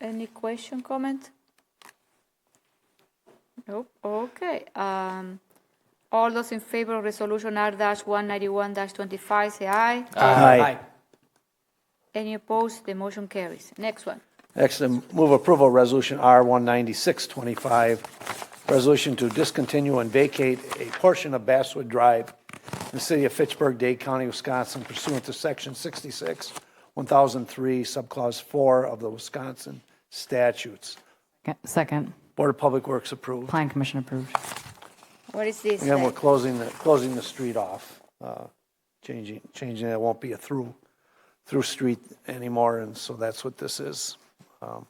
Any question, comment? Nope. Okay. Um, all those in favor of resolution R one ninety-one twenty-five, say aye. Aye. Any opposed? The motion carries. Next one. Next, I move approval of Resolution R19625, resolution to discontinue and vacate a portion of Basswood Drive in the city of Fitchburg, Dade County, Wisconsin pursuant to Section 66, 1003, Subclause 4 of the Wisconsin statutes. Second. Board of Public Works approved. Plan Commission approved. What is this? Again, we're like? closing the, closing the street off, uh, changing, changing, it won't be a through, through street anymore, and so that's what this is. Um,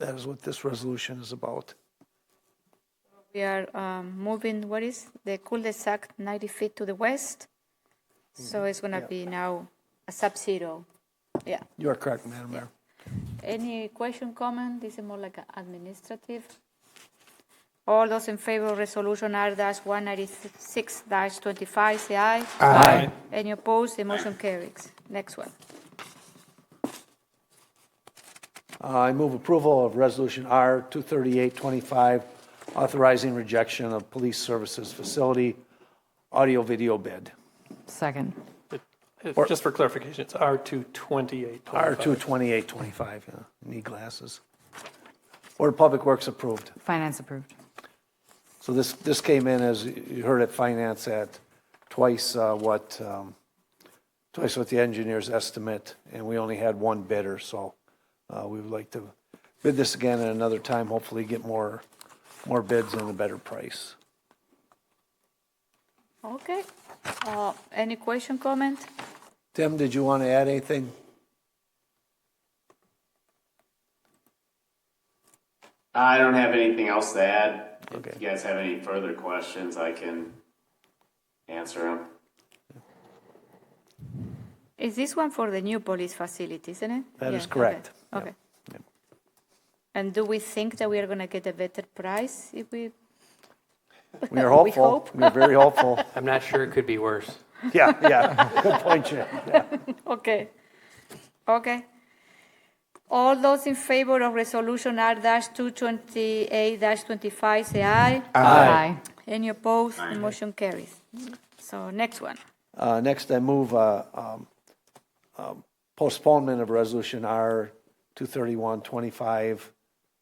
That is what this resolution is about. We are um, moving, what is, the cul-de-sac 90 feet to the west? So it's going to be now a sub-zero. Yeah. You are correct, Madam Mayor. Any question, comment? This is more like a administrative. All those in favor of resolution R one ninety-six twenty-five, say aye. Aye. Any opposed? The motion carries. Next one. Uh, I move approval of Resolution R 23825, authorizing rejection of police services facility audio-video bid. Second. If- Just for clarification, it's R228. R 22825, yeah, need glasses. Board of Public Works approved. Finance approved. So this, this came in as, you heard at finance at twice uh, what, um, twice what the engineer's estimate, and we only had one bidder, so uh, we would like to bid this again at another time, hopefully get more, more bids and a better price. Okay. Uh, Any question, comment? Tim, did you want to add anything? I don't have anything else to add. Okay. If you guys have any further questions, I can answer them. Is this one for the new police facility, isn't it? That Yeah, is correct. Okay. okay. And do we think that we are going to get a better price if we, We are hopeful, hope. we're very hopeful. I'm not sure it could be worse. Yeah, yeah, good point, Jim. Yeah. okay. Okay. All those in favor of resolution R two twenty-eight twenty-five, say aye. Aye. Any opposed? The motion carries. So next one. Uh, Next, I move uh, um, um, postponement of Resolution R 23125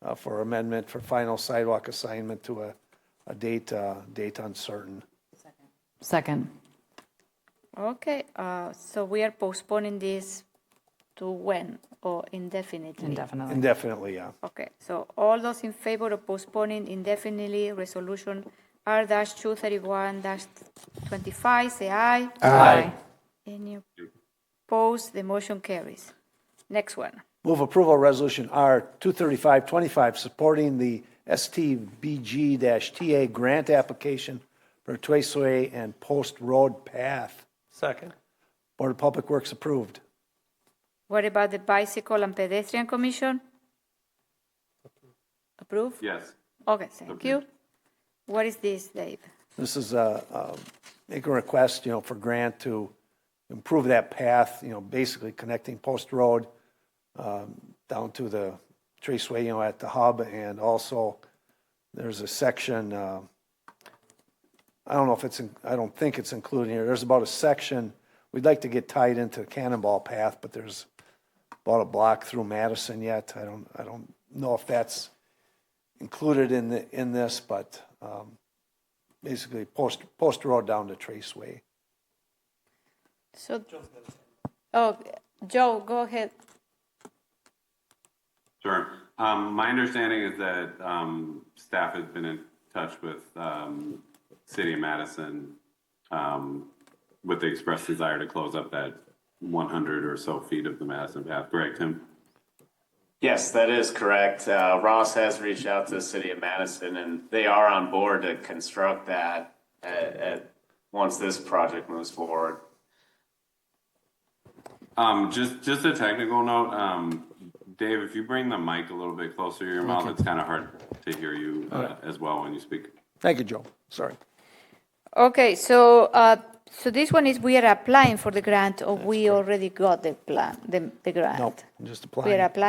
uh, for amendment for final sidewalk assignment to a, a date, uh, date uncertain. Second. Okay, uh, so we are postponing this to when or indefinitely? Indefinitely. Indefinitely, yeah. Okay, so all those in favor of postponing indefinitely resolution R two thirty-one twenty-five, say aye. Aye. Any opposed? The motion carries. Next one. Move approval of Resolution R 23525, supporting the STBG-TA grant application for Twaceway and Post Road Path. Second. Board of Public Works approved. What about the bicycle and pedestrian commission? Approved? Yes. Okay, thank you. What is this, Dave? This is a, a- make a request, you know, for grant to improve that path, you know, basically connecting Post Road um, down to the traceway, you know, at the hub, and also there's a section, uh, I don't know if it's, in- I don't think it's included here, there's about a section, we'd like to get tied into Cannonball Path, but there's about a block through Madison yet, I don't, I don't know if that's included in the, in this, but um, basically post, post road down to Traceway. So, oh, Joe, go ahead. Sure. Um, my understanding is that, um, staff has been in touch with, um, City of Madison, um, with the express desire to close up that one hundred or so feet of the Madison path, correct, Tim? Yes, that is correct. Uh, Ross has reached out to the city of Madison and they are on board to construct that at, at, once this project moves forward. Um, just, just a technical note, um, Dave, if you bring the mic a little bit closer to your mouth, it's kind of hard to hear you, uh, as well when you speak. Thank you, Joe. Sorry. Okay, so, uh, so this one is we are applying for the grant or we already got the plan, the, the grant? Nope, just We are applying. applying